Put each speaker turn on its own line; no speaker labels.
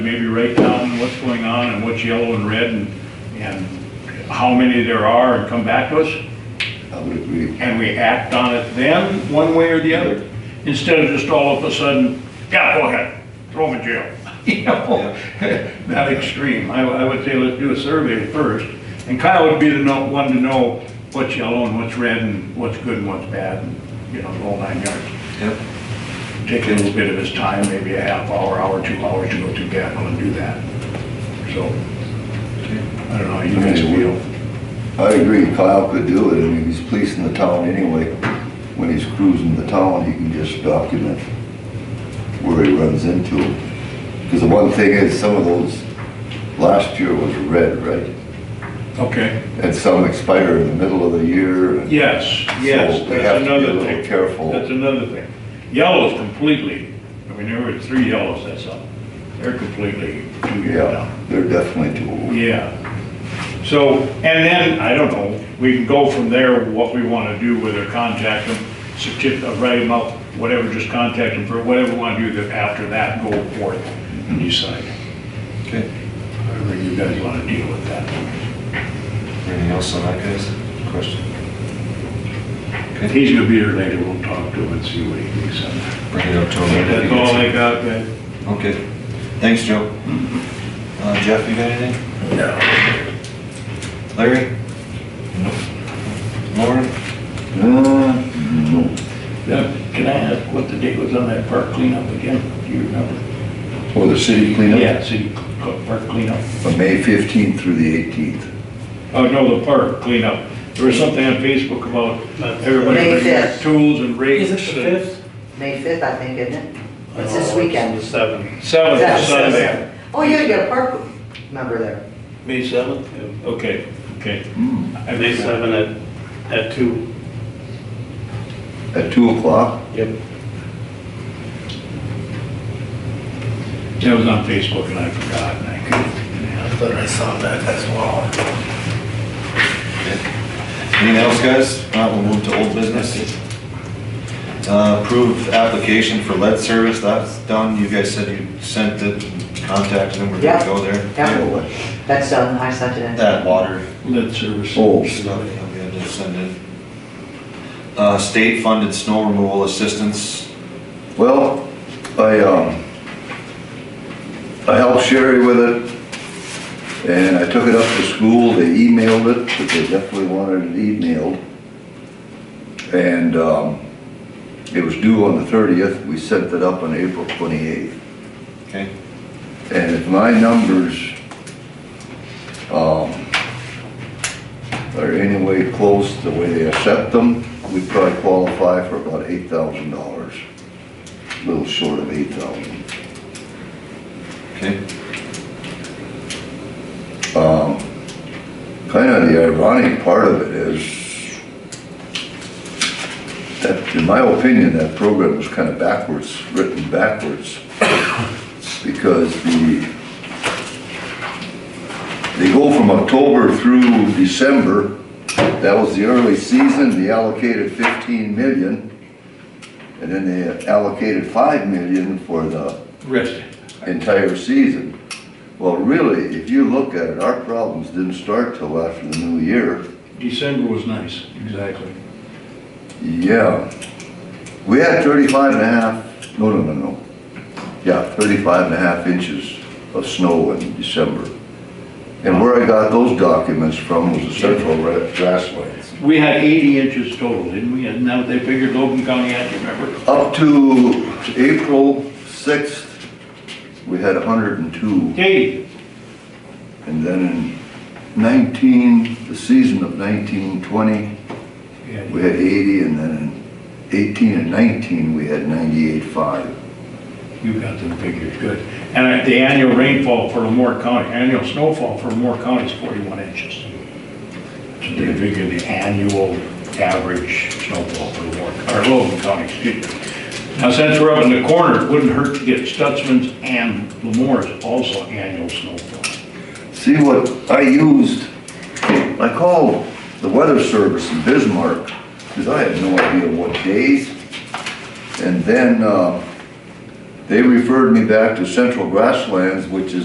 maybe write down what's going on and what's yellow and red and, and how many there are and come back to us?
I would agree.
And we act on it then, one way or the other, instead of just all of a sudden, yeah, go ahead, throw them in jail. You know, That extreme. I, I would say let's do a survey first. And Kyle would be the no- one to know what's yellow and what's red and what's good and what's bad and, you know, the whole nine yards.
Yep.
take a little bit of his time, maybe a half hour, hour, two hours to go through Gatineau and do that. So, I don't know, how you guys feel.
I agree, Kyle could do it, I mean, he's policing the town anyway. When he's cruising the town, he can just document where he runs into them. Because the one thing is, some of those, last year was red, right?
Okay,
And some expire in the middle of the year. and-
yes, yes,
So they have
that's
to be a
another
little
thing.
careful.
That's another thing. Yellow's completely, I mean, there were three yellows, that's all. They're completely two years
Yeah,
now.
they're definitely too old.
Yeah. So, and then, I don't know, we can go from there, what we want to do, whether contact them, certif- uh, write them up, whatever, just contact them for whatever we want to do, then after that, go forth and decide.
Okay,
However you guys want to deal with that.
anything else on that, guys? Question?
If
Okay,
he's gonna be here later, we'll talk to him and see what he thinks on that.
bring it up to him.
That's all I got, guys.
Okay, thanks, Joe. Uh, Jeff, you got anything? Larry? Lauren?
Uh, no.
Can I ask what the date was on that park cleanup again? Do you remember?
Or the city cleanup?
Yeah, city cl- park cleanup.
From May 15th through the 18th.
Oh, no, the park cleanup. There was something on Facebook about everybody
May
bringing their
fifth.
tools and rakes.
Is it the fifth?
May 5th, I think, isn't it? Oh, It's this weekend.
Seventh.
Seventh,
Is that-
Sunday.
Oh, yeah, you got a park member there.
May seventh?
Okay, okay. I
May
missed that.
seventh at, at two.
At 2 o'clock?
Yep.
That was on Facebook and I forgot and I couldn't.
But I saw that as well.
Anything else, guys? Uh, we'll move to old business. Uh, approve application for lead service, that's done, you guys said you sent it, contacted them, we're gonna
Yeah.
go there.
Yeah, that's done, I sent it in.
That water
Lead service.
Oh,
stuff that we had to send in. Uh, state funded snow removal assistance,
Well, I, um, I helped Sherry with it, and I took it up to school, they emailed it, but they definitely wanted it emailed. And, um, it was due on the thirtieth, we sent it up on April twenty-eighth.
okay?
And if my numbers, um, are any way close to the way they accept them, we probably qualify for about eight thousand dollars. A little short of eight thousand.
Okay,
Um, kinda the ironic part of it is that, in my opinion, that program was kinda backwards, written backwards. Because the, they go from October through December, that was the early season, they allocated fifteen million. And then they allocated five million for the
Rest.
entire season. Well, really, if you look at it, our problems didn't start till after the new year.
December was nice. Exactly.
Yeah. We had 35 and a half, no, no, no, no. Yeah, 35 and a half inches of snow in December. And where I got those documents from was the Central Ra- Grasslands.
We had 80 inches total, didn't we? And now they figured Logan County had, you remember?
Up to April 6th, we had 102.
80.
And then in 19, the season of 1920, We had 80, and then in 18 and 19, we had 98.5.
You got them figures, good. And uh, the annual rainfall for Lamore County, annual snowfall for Lamore County is 41 inches. So they figure the annual average snowfall for Lamore, or Logan County, excuse me. Now, since we're up in the corner, it wouldn't hurt to get Stutzman's and Lamore's also annual snowfall.
See what I used, I called the weather service in Bismarck, because I had no idea what days. And then, uh, They referred me back to Central Grasslands, which is